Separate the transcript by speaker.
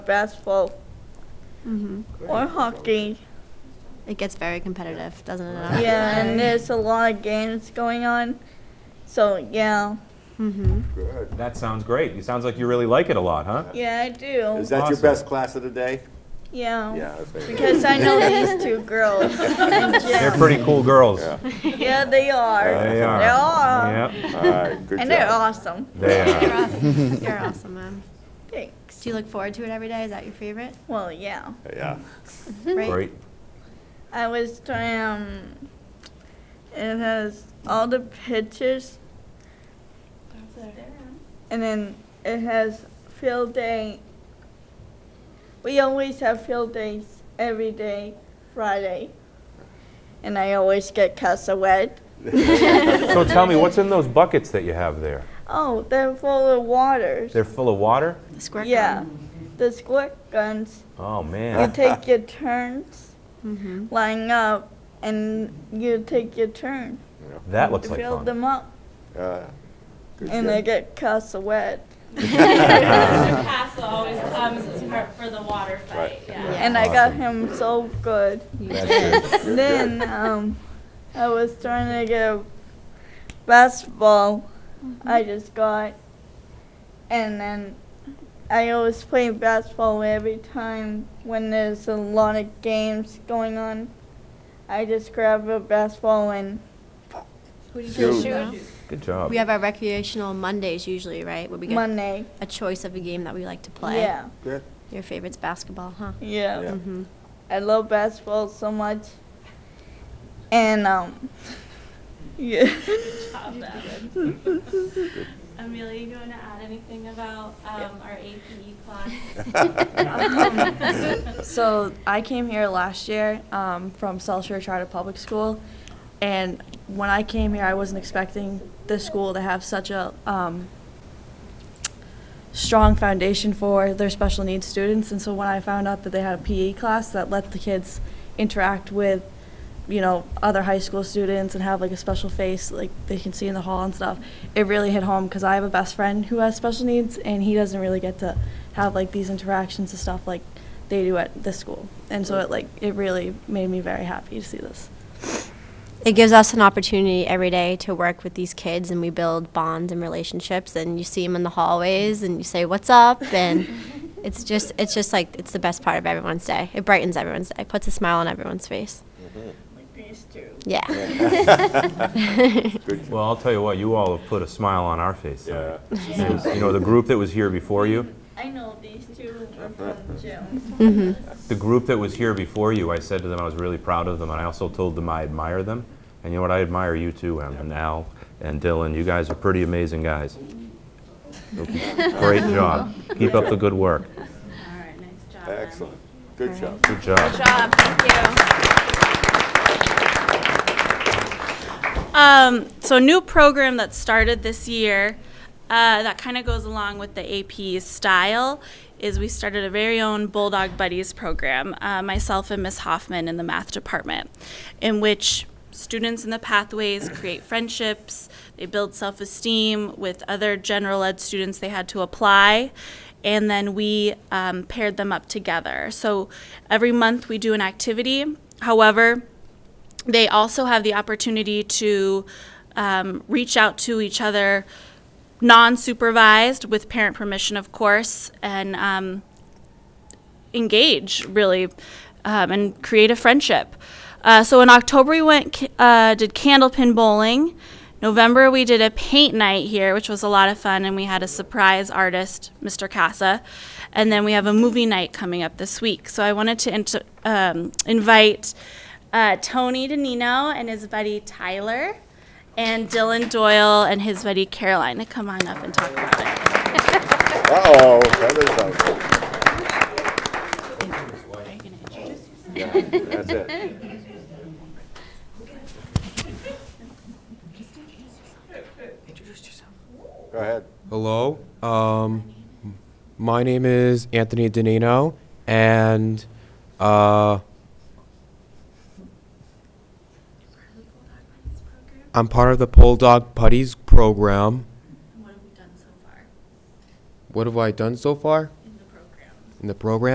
Speaker 1: basketball or hockey.
Speaker 2: Mm-hmm. It gets very competitive, doesn't it?
Speaker 1: Yeah, and there's a lot of games going on. So yeah,
Speaker 2: Mm-hmm.
Speaker 3: Good.
Speaker 4: That sounds great. It sounds like you really like it a lot, huh?
Speaker 1: yeah, I do.
Speaker 3: Is that your
Speaker 4: Awesome.
Speaker 3: best class of the day?
Speaker 1: Yeah.
Speaker 3: Yeah. I think.
Speaker 1: Because I know these two girls.
Speaker 4: They're pretty cool girls.
Speaker 3: Yeah.
Speaker 1: Yeah, they are.
Speaker 4: They are.
Speaker 1: They are.
Speaker 4: Yep,
Speaker 3: All right, good
Speaker 1: And they're
Speaker 3: job.
Speaker 1: awesome.
Speaker 4: they
Speaker 2: You're
Speaker 4: are.
Speaker 2: awesome. You're awesome, ma'am.
Speaker 1: Thanks.
Speaker 2: Do you look forward to it every day? Is that your favorite?
Speaker 1: Well, yeah.
Speaker 3: Yeah.
Speaker 1: Mm-hmm.
Speaker 2: Right?
Speaker 4: Great.
Speaker 1: I was trying. Um, it has all the pictures, and then it has field day. We always have field days every day, Friday, and I always get cast away.
Speaker 4: So tell me, what's in those buckets that you have there?
Speaker 1: Oh, they're full of waters.
Speaker 4: They're full of water?
Speaker 2: The squirt
Speaker 1: yeah, the squirt guns.
Speaker 4: Oh,
Speaker 1: You
Speaker 4: man.
Speaker 1: take your turns
Speaker 2: Mm-hmm.
Speaker 1: lining up, and you take your turn
Speaker 4: That
Speaker 1: to
Speaker 4: looks like
Speaker 1: fill
Speaker 4: fun.
Speaker 1: them up,
Speaker 3: Uh, good
Speaker 1: and
Speaker 3: job.
Speaker 1: I get cast away.
Speaker 5: Mr. Castle always comes as part for the water
Speaker 3: Right.
Speaker 5: fight, yeah.
Speaker 1: and I got him so good.
Speaker 4: That's good.
Speaker 1: Then um, I was trying to get a basketball.
Speaker 2: Mm-hmm.
Speaker 1: I just got, and then I always play basketball every time when there's a lot of games going on. I just grab a basketball and
Speaker 2: Who do you
Speaker 3: Shoot.
Speaker 2: shoot?
Speaker 4: Good job.
Speaker 2: We have our recreational Mondays usually, right? Where we get
Speaker 1: Monday.
Speaker 2: a choice of a game that we like to play.
Speaker 1: Yeah,
Speaker 3: Good.
Speaker 2: Your favorite's basketball, huh?
Speaker 1: yeah,
Speaker 3: Yeah.
Speaker 2: Mm-hmm.
Speaker 1: I love basketball so much, and um, yeah.
Speaker 5: Top that. Amelia, you going to add anything about um, our APE class?
Speaker 6: So I came here last year um, from South Shore Charter Public School, and when I came here, I wasn't expecting this school to have such a um, strong foundation for their special needs students. And so when I found out that they had a PE class that let the kids interact with, you know, other high school students and have like a special face like they can see in the hall and stuff, it really hit home because I have a best friend who has special needs and he doesn't really get to have like these interactions and stuff like they do at this school. And so it like it really made me very happy to see this.
Speaker 2: It gives us an opportunity every day to work with these kids and we build bonds and relationships and you see them in the hallways and you say what's up and it's just it's just like it's the best part of everyone's day. It brightens everyone's day. Puts a smile on everyone's face.
Speaker 1: Like these two.
Speaker 2: Yeah.
Speaker 3: Good job.
Speaker 4: Well, I'll tell you what, you all have put a smile on our face.
Speaker 3: Yeah.
Speaker 4: tonight. And, You know, the group that was here before you,
Speaker 1: I know these two are from the gym.
Speaker 4: the group that was here before you, I said to them I was really proud of them, and I also told them I admire them. And you know what? I admire you too, Em, and Al and Dylan. You guys are pretty amazing guys. Great job. Keep up the good work.
Speaker 5: All right, nice job. Em.
Speaker 3: Excellent. Good job.
Speaker 4: Good job.
Speaker 5: job, thank you. Um, so a new program that started this year, uh, that kind of goes along with the AP's style, is we started a very own Bulldog Buddies program, uh, myself and Miss Hoffman in the math department, in which students in the pathways create friendships, they build self-esteem with other general ed students they had to apply, and then we um, paired them up together. So every month we do an activity. However, they also have the opportunity to um, reach out to each other non supervised, with parent permission, of course, and um, engage really um, and create a friendship. Uh, so in October we went ca- uh, did candlepin bowling. November we did a paint night here, which was a lot of fun, and we had a surprise artist, Mr. Casa, and then we have a movie night coming up this week. So I wanted to int- um, invite uh, Tony DeNino and his buddy Tyler, and Dylan Doyle and his buddy Caroline to come on up and talk about it.
Speaker 3: Uh-oh, that is out. Yeah, that's it. Go ahead.
Speaker 7: Hello. Um, my name is Anthony Danino, and uh, I'm part of the Bulldog Putties program. What have I done so far? in the program.